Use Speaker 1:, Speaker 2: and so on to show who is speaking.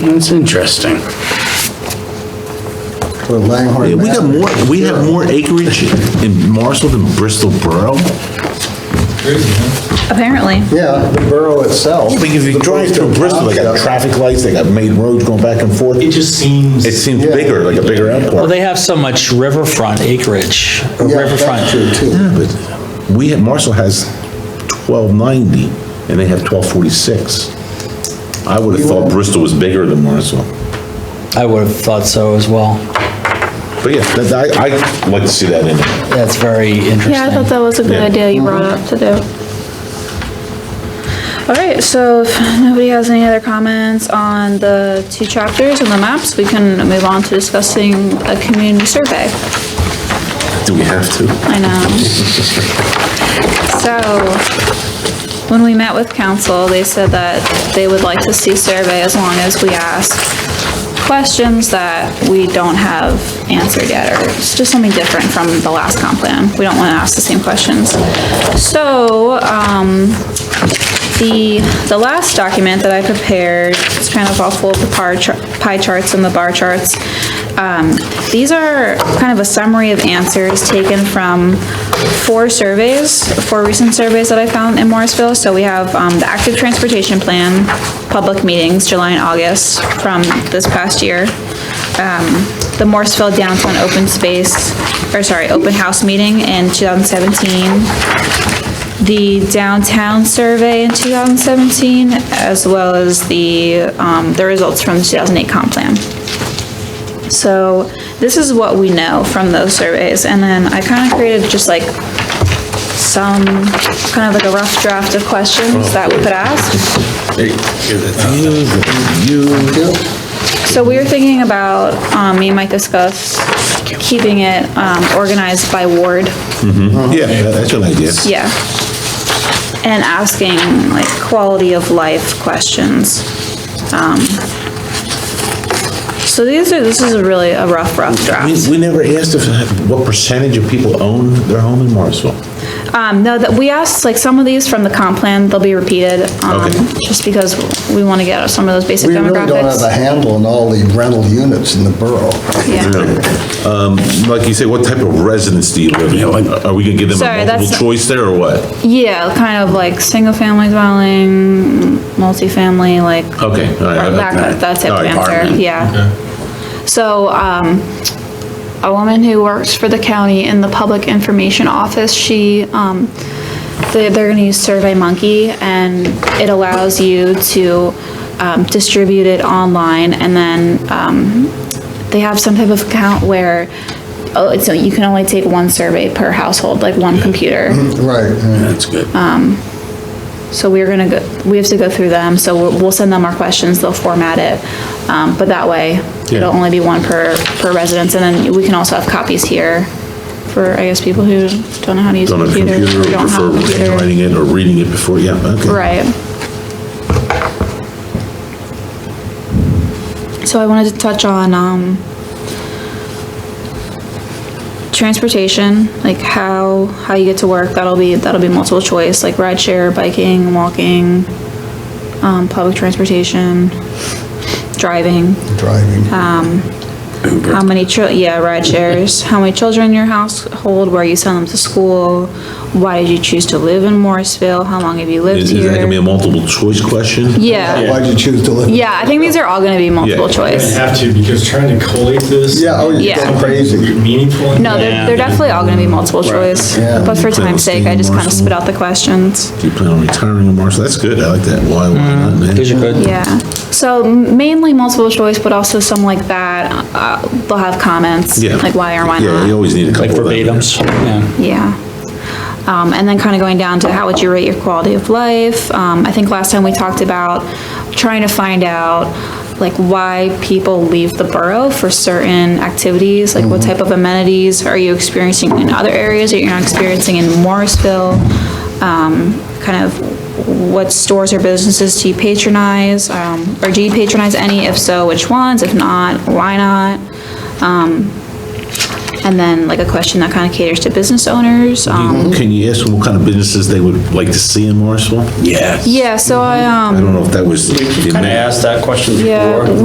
Speaker 1: That's interesting.
Speaker 2: For Langhorne.
Speaker 3: Yeah, we got more, we have more acreage in Marshall than Bristol Borough?
Speaker 4: apparently.
Speaker 2: Yeah, the borough itself.
Speaker 3: Oh, Because if you drive through Bristol, they got traffic lights, they got main roads going back and forth.
Speaker 5: It just seems,
Speaker 3: It seems bigger, like a bigger
Speaker 6: Well,
Speaker 3: airport.
Speaker 6: they have so much riverfront acreage, or
Speaker 2: Yeah, that's true
Speaker 6: riverfront.
Speaker 2: too.
Speaker 3: Yeah, but we have, Marshall has 1290 and they have 1246. I would have thought Bristol was bigger than Marshall.
Speaker 6: I would have thought so as well.
Speaker 3: But yeah, that- I, I'd like to see that in it.
Speaker 6: That's very interesting.
Speaker 7: Yeah, I thought that was a good
Speaker 3: Yeah.
Speaker 7: idea you brought up to do. All right, so if nobody has any other comments on the two chapters and the maps, we can move on to discussing a community survey.
Speaker 3: Do we have to?
Speaker 5: Uh-huh.
Speaker 7: I know. So, when we met with council, they said that they would like to see survey as long as we ask questions that we don't have answered yet, or it's just something different from the last comp plan. We don't want to ask the same questions. So, um, the, the last document that I prepared, it's kind of all full of the par char- pie charts and the bar charts. Um, These are kind of a summary of answers taken from four surveys, four recent surveys that I found in Morrisville. So we have um, the active transportation plan, public meetings, July and August from this past year. Um, The Morrisville downtown open space, or sorry, open house meeting in 2017 the downtown survey in 2017, as well as the, um, the results from the 2008 comp plan. So this is what we know from those surveys, and then I kind of created just like some, kind of like a rough draft of questions that we could ask. So we were thinking about, um, me and Mike discussed keeping it, um, organized by ward.
Speaker 3: Yeah, that's an idea.
Speaker 7: Yeah. And asking like quality of life questions. Um, So these are, this is a really a rough, rough
Speaker 3: We,
Speaker 7: draft.
Speaker 3: we never asked if, what percentage of people own their home in Morrisville?
Speaker 7: Um, no, that, we asked like some of these from the comp plan, they'll be repeated, um,
Speaker 3: Okay.
Speaker 7: just because we want to get some of those basic
Speaker 2: We really don't
Speaker 7: demographics.
Speaker 2: have a handle on all the rental units in the borough.
Speaker 7: Yeah.
Speaker 3: Um, like you say, what type of residence do you live in? Are we gonna give them
Speaker 7: Sorry,
Speaker 3: a
Speaker 7: that's-
Speaker 3: multiple choice there or what?
Speaker 7: Yeah, kind of like single-family dwelling, multifamily, like.
Speaker 3: Okay, all right,
Speaker 7: Or
Speaker 3: I-
Speaker 7: That,
Speaker 3: I-
Speaker 7: that type
Speaker 3: all
Speaker 7: of
Speaker 3: right,
Speaker 7: answer,
Speaker 3: apartment.
Speaker 7: yeah. So, um, a woman who works for the county in the public information office, she, um, they- they're gonna use Survey Monkey, and it allows you to um, distribute it online, and then um, they have some type of account where, oh, so you can only take one survey per household, like one computer.
Speaker 3: Mm-hmm.
Speaker 2: Right, yeah.
Speaker 1: That's good.
Speaker 7: So we're gonna go, we have to go through them, so we'll, we'll send them our questions, they'll format it. Um, but that way,
Speaker 3: Yeah.
Speaker 7: it'll only be one per, per residence, and then we can also have copies here for, I guess, people who don't know how to use a
Speaker 3: On a
Speaker 7: computer.
Speaker 3: computer,
Speaker 7: or
Speaker 3: or
Speaker 7: don't have a
Speaker 3: prefer
Speaker 7: computer.
Speaker 3: writing it or reading it before, yeah, okay.
Speaker 7: Right. So I wanted to touch on, um, transportation, like how, how you get to work, that'll be, that'll be multiple choice, like ride share, biking, walking, um, public transportation, driving,
Speaker 2: driving.
Speaker 7: how many chil, yeah, ride shares, how many children in your household, where you send them to school, why did you choose to live in Morrisville, how long have you lived
Speaker 3: Is
Speaker 7: here?
Speaker 3: is that gonna be a multiple choice question?
Speaker 7: Yeah,
Speaker 2: Why'd you choose to live?
Speaker 7: yeah, I think these are all gonna be multiple
Speaker 3: Yeah.
Speaker 5: I
Speaker 7: choice.
Speaker 5: have to, because trying to collate this.
Speaker 2: Yeah, oh,
Speaker 7: Yeah.
Speaker 2: you're going crazy.
Speaker 5: Meaningful.
Speaker 7: No, they're, they're definitely all gonna be multiple choice,
Speaker 2: Yeah.
Speaker 7: but for time's sake, I just kinda
Speaker 3: Marshall.
Speaker 7: spit out the questions.
Speaker 3: Do you plan on retiring in Marshall? That's good, I like that. Why, why not, man?
Speaker 6: These are good.
Speaker 7: Yeah, so mainly multiple choice, but also some like that, uh, they'll have comments,
Speaker 3: Yeah.
Speaker 7: like why or why
Speaker 3: Yeah, you
Speaker 7: not,
Speaker 3: always need a couple of
Speaker 6: Like
Speaker 3: them.
Speaker 6: verbatims, yeah.
Speaker 7: yeah. Um, and then kinda going down to how would you rate your quality of life, um, I think last time we talked about trying to find out like why people leave the borough for certain activities, like what type of amenities are you experiencing in other areas that you're not experiencing in Morrisville? um, kind of what stores or businesses do you patronize, um, or do you patronize any? If so, which ones? If not, why not? Um, And then like a question that kind of caters to business owners. um,
Speaker 3: Can you ask them what kind of businesses they would like to see in Morrisville?
Speaker 1: Yeah.
Speaker 7: Yeah, so I, um.
Speaker 3: I don't know if that was.
Speaker 8: Kind of asked that question before.
Speaker 7: Yeah.